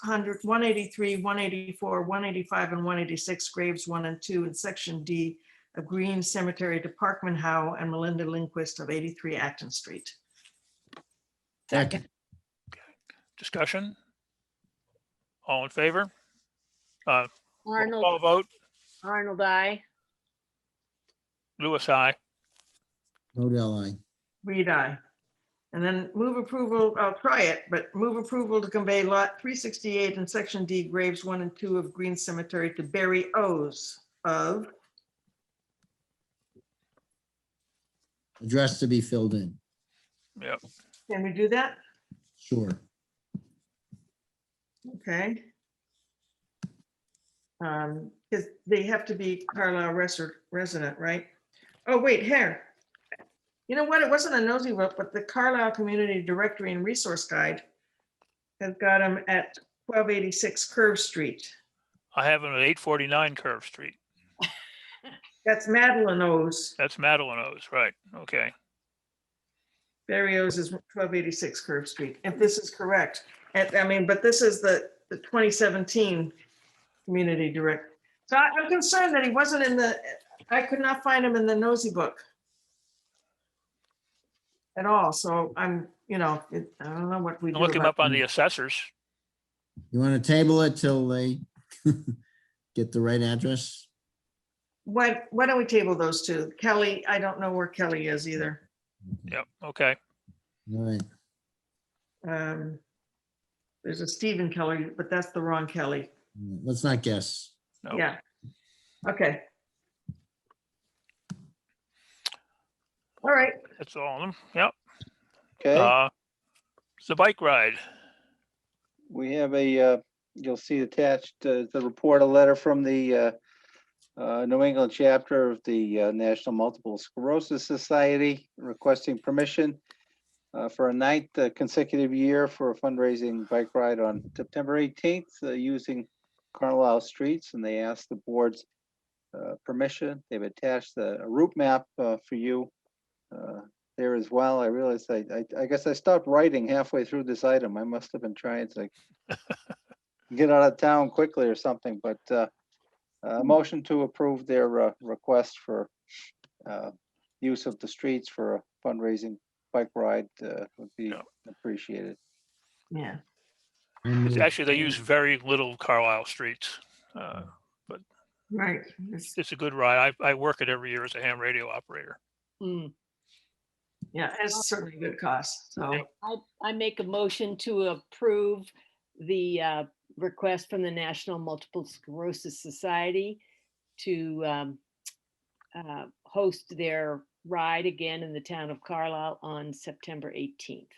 hundred, one eighty-three, one eighty-four, one eighty-five, and one eighty-six, graves one and two, in section D of Green Cemetery to Parkman Howe and Melinda Lindquist of eighty-three Acton Street. Second. Discussion? All in favor? Uh, roll call Arnold, vote, Arnold, I. Lewis, I. Modell, aye. Read I. And then move approval, I'll try it, but move approval to convey lot three sixty-eight and section D graves one and two of Green Cemetery to Barry O's of Address to be filled in. Yep. Can we do that? Sure. Okay. Um, because they have to be Carlisle resi- resident, right? Oh, wait, here. You know what? It wasn't a nosy vote, but the Carlisle Community Directory and Resource Guide has got them at twelve eighty-six Curve Street. I have them at eight forty-nine Curve Street. That's Madeline O's. That's Madeline O's, right? Okay. Barry O's is twelve eighty-six Curve Street, if this is correct. And I mean, but this is the, the twenty seventeen community direct. So I- I'm concerned that he wasn't in the, I could not find him in the nosy book. At all, so I'm, you know, it- I don't know what we You do. can Look him about- up on the assessors. You want to table it till they get the right address? Why, why don't we table those two? Kelly, I don't know where Kelly is either. Yep, okay. All right. Um, There's a Stephen Kelly, but that's the wrong Kelly. Let's not guess. Nope. Yeah. Okay. All right, That's all of them. Yep. Okay, Uh, It's the bike ride. we have a, uh, you'll see attached uh, the report, a letter from the uh, uh, New England chapter of the uh, National Multiple Sclerosis Society requesting permission uh, for a ninth uh, consecutive year for a fundraising bike ride on September 18th uh, using Carlisle streets, and they asked the board's uh, permission. They've attached a a route map uh, for you uh, there as well. I realized I, I, I guess I stopped writing halfway through this item. I must have been trying to get out of town quickly or something, but, uh, a motion to approve their, uh, request for, uh, use of the streets for a fundraising bike ride, uh, would be Yeah. appreciated. yeah, I It's move- Actually, they use very little Carlisle streets. Uh, right. It's- It's a good ride. I, I work it every year as a ham radio operator. Mm. Yeah, it's certainly a good cost, so. I, I make a motion to approve the uh, request from the National Multiple Sclerosis Society to um, uh, host their ride again in the town of Carlisle on September 18th.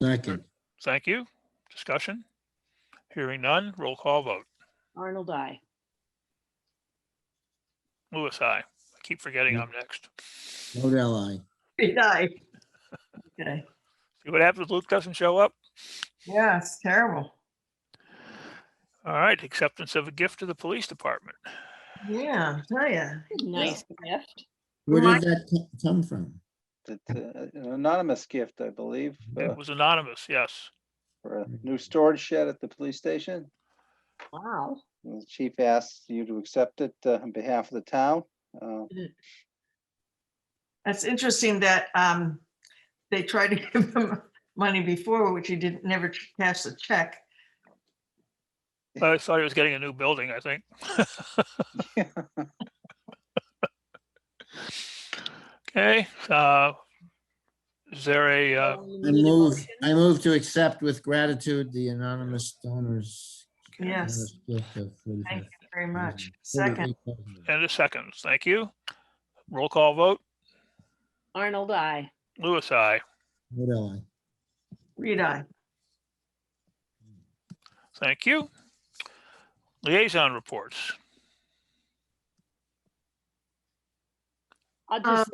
Second. Thank you. Discussion? Hearing none, roll call vote. Arnold, I. Lewis, I. I keep forgetting Yeah. I'm next. Modell, aye. Die. Okay, See what happens? Luke doesn't show up? yeah, it's terrible. All right, acceptance of a gift to the police department. Yeah, tell ya. Nice gift. Where My- did that co- come from? It's uh, an anonymous gift, I believe, uh, It was anonymous, yes. for a new storage shed at the police station. Wow. The chief asks you to accept it uh, on behalf of the town. Uh, That's interesting that um, they tried to give him money before, which he didn't, never cash the check. I thought he was getting a new building, I think. Okay, uh, is there a, uh, Oh, you I need a move, motion? I move to accept with gratitude the anonymous donors. Yes, generous gift of thank you 45 very much. Second, $48,000. and a second, thank you. Roll call vote, Arnold, I. Lewis, I. Modell, aye. read I. Thank you. Liaison reports. I'll just,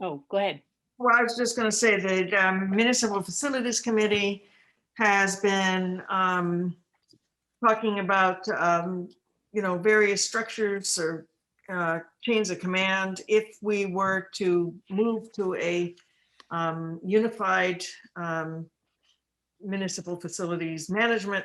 oh, go ahead. Well, I was just going to say that um, Municipal Facilities Committee has been um, talking about, um, you know, various structures or uh, chains of command. If we were to move to a um, unified um, municipal facilities management